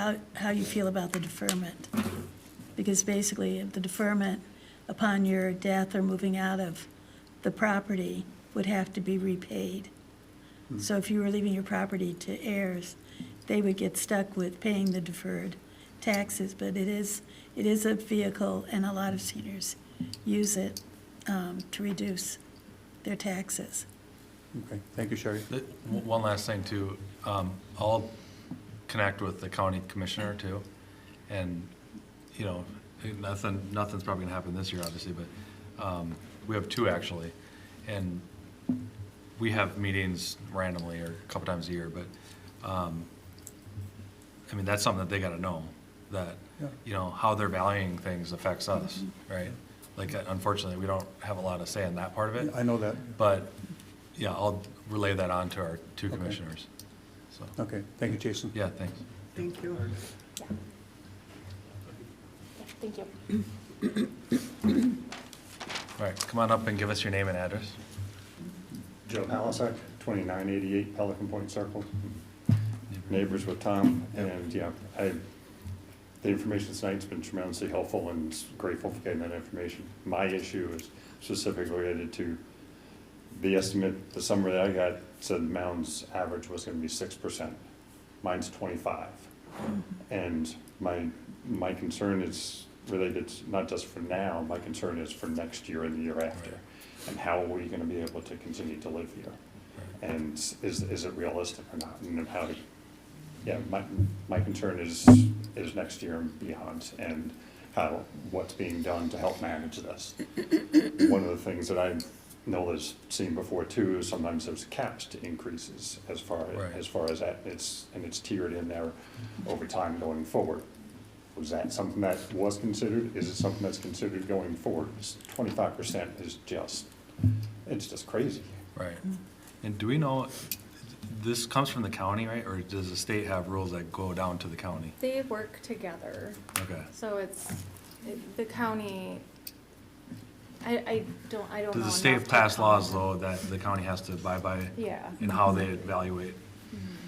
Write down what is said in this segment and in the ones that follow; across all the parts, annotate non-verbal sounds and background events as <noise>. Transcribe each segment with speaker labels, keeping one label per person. Speaker 1: how, how you feel about the deferment. Because basically, the deferment upon your death or moving out of the property would have to be repaid. So if you were leaving your property to heirs, they would get stuck with paying the deferred taxes, but it is, it is a vehicle, and a lot of seniors use it um, to reduce their taxes.
Speaker 2: Okay, thank you, Sherry.
Speaker 3: The- w- One last thing too, um, I'll connect with the county commissioner too, and, you know, nothing, nothing's probably gonna happen this year, obviously, but, um, we have two actually, and we have meetings randomly or a couple times a year, but, um, I mean, that's something that they gotta know, that,
Speaker 2: Yeah.
Speaker 3: you know, how they're valuing things affects us, right? Like uh, unfortunately, we don't have a lot of say in that part of it.
Speaker 2: I know that.
Speaker 3: But, yeah, I'll relay that on to our two
Speaker 2: Okay.
Speaker 3: commissioners. So,
Speaker 2: Okay, thank you, Jason.
Speaker 3: yeah, thanks.
Speaker 4: Thank you.
Speaker 5: Thank you.
Speaker 3: All right, come on up and give us your name and address.
Speaker 6: Joe Palisak, 2988 Pelican Point Circle, neighbors with Tom, and yeah, I, the information tonight's been tremendously helpful and grateful for getting that information. My issue is specifically related to the estimate, the summary that I got said Mound's average was gonna be six percent. Mine's twenty-five. And my, my concern is related, to- not just for now, my concern is for next year and the year after. And how are we gonna be able to continue to live here? And is, is it realistic or not? And how to, yeah, my, my concern is, is next year and beyond and how, what's being done to help manage this one of the things that I know has seen before too is sometimes there's caps to increases as far,
Speaker 3: Right.
Speaker 6: as far as that, it's, and it's tiered in there over time going forward. Was that something that was considered? Is it something that's considered going forward? Twenty-five percent is just, it's just crazy.
Speaker 3: Right. And do we know, this comes from the county, right? Or does the state have rules that go down to the county?
Speaker 5: They work together,
Speaker 3: Okay.
Speaker 5: so it's, it- the county, I, I don't, I don't know.
Speaker 3: Does the state
Speaker 5: enough to
Speaker 3: pass laws
Speaker 5: comment.
Speaker 3: though that the county has to abide by?
Speaker 5: Yeah.
Speaker 3: And how they evaluate?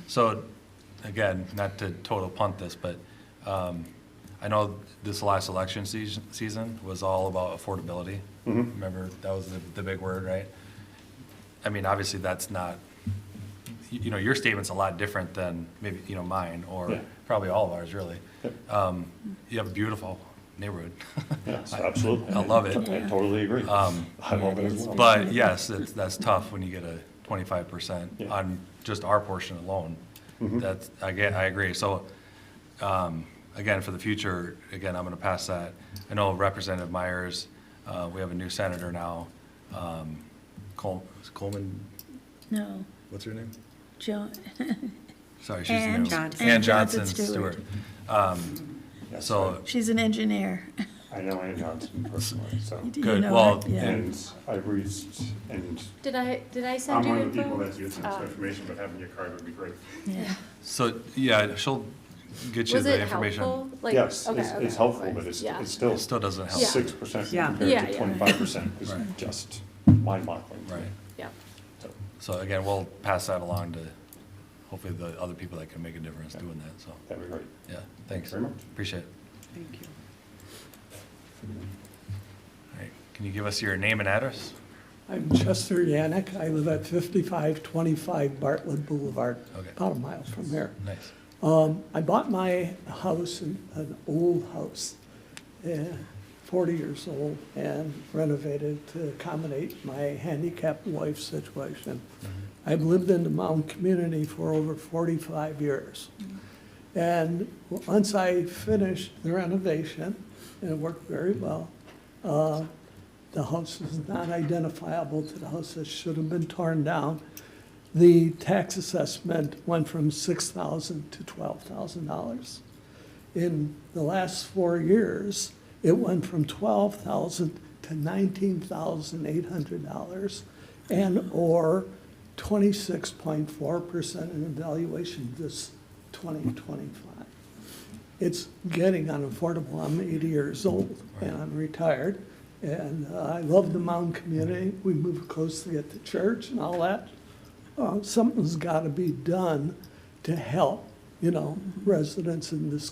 Speaker 3: So, again, not to total punt this, but um, I know this last election seas- season was all about affordability.
Speaker 6: Mm-hmm.
Speaker 3: Remember, that was the, the big word, right? I mean, obviously, that's not, you you know, your statement's a lot different than maybe, you know, mine, or
Speaker 6: Yeah.
Speaker 3: probably all of ours, really.
Speaker 6: Yep.
Speaker 3: Um, You have a beautiful neighborhood.
Speaker 6: Yes,
Speaker 3: <laughs>
Speaker 6: absolutely.
Speaker 3: I love it.
Speaker 6: I totally agree.
Speaker 3: Um,
Speaker 6: I love it as well.
Speaker 3: But yes, it's, that's tough when you get a twenty-five percent
Speaker 6: Yeah. Mm-hmm.
Speaker 3: on just our portion alone. That's, I get, I agree. So, um, again, for the future, again, I'm gonna pass that. I know Representative Myers, uh, we have a new senator now, um, Col- is Coleman,
Speaker 1: No,
Speaker 3: what's her name?
Speaker 1: Joan,
Speaker 3: Sorry, she's the new.
Speaker 1: Ann
Speaker 4: Johnson.
Speaker 3: Ann
Speaker 1: Ann Johnson
Speaker 3: Johnson
Speaker 1: Stewart.
Speaker 3: Stewart. Um,
Speaker 6: Yes,
Speaker 3: so,
Speaker 1: she's an engineer. <laughs>
Speaker 6: I know Ann Johnson personally, so.
Speaker 1: You do
Speaker 3: Good,
Speaker 1: know her?
Speaker 3: well,
Speaker 1: Yeah.
Speaker 6: And I reached, and
Speaker 5: Did I, did I send
Speaker 6: I'm
Speaker 5: you?
Speaker 6: one of the
Speaker 5: info?
Speaker 6: people that's using this
Speaker 5: Oh.
Speaker 6: information, but having your card would be great.
Speaker 1: Yeah.
Speaker 3: so, yeah, she'll get you
Speaker 5: Was
Speaker 3: the
Speaker 5: it
Speaker 3: information.
Speaker 5: helpful? Like,
Speaker 6: Yes,
Speaker 5: okay,
Speaker 6: it's,
Speaker 5: okay,
Speaker 6: it's helpful,
Speaker 5: okay.
Speaker 6: but it's,
Speaker 5: Yeah.
Speaker 6: it's still.
Speaker 3: It still doesn't help.
Speaker 5: Yeah.
Speaker 6: Six percent
Speaker 4: Yeah.
Speaker 5: Yeah,
Speaker 6: compared to
Speaker 5: yeah.
Speaker 6: twenty-five percent is
Speaker 3: Right.
Speaker 6: just mind-boggling.
Speaker 3: Right.
Speaker 5: Yeah,
Speaker 6: So,
Speaker 3: So again, we'll pass that along to hopefully the other people that can make a difference doing that, so,
Speaker 6: That'd be great.
Speaker 3: yeah, thanks.
Speaker 6: Very much.
Speaker 3: Appreciate it.
Speaker 4: Thank you.
Speaker 3: All right, can you give us your name and address?
Speaker 7: I'm Chester Yannick. I live at 5525 Bartlett Boulevard,
Speaker 3: Okay.
Speaker 7: about a mile from here.
Speaker 3: Nice.
Speaker 7: Um, I bought my house, an an old house, eh, 40 years old, and renovated to accommodate my handicapped wife's situation. I've lived in the mountain community for over 45 years. And once I finished the renovation, and it worked very well, uh, the house is not identifiable to the house that should have been torn down. The tax assessment went from six thousand to twelve thousand dollars. In the last four years, it went from twelve thousand to nineteen thousand eight hundred dollars and/or twenty-six point four percent in evaluation this twenty twenty-five it's getting unaffordable. I'm 80 years old and I'm retired. And uh, I love the mountain community. We move closely at the church and all that. Uh, Something's got to be done to help, you know, residents in this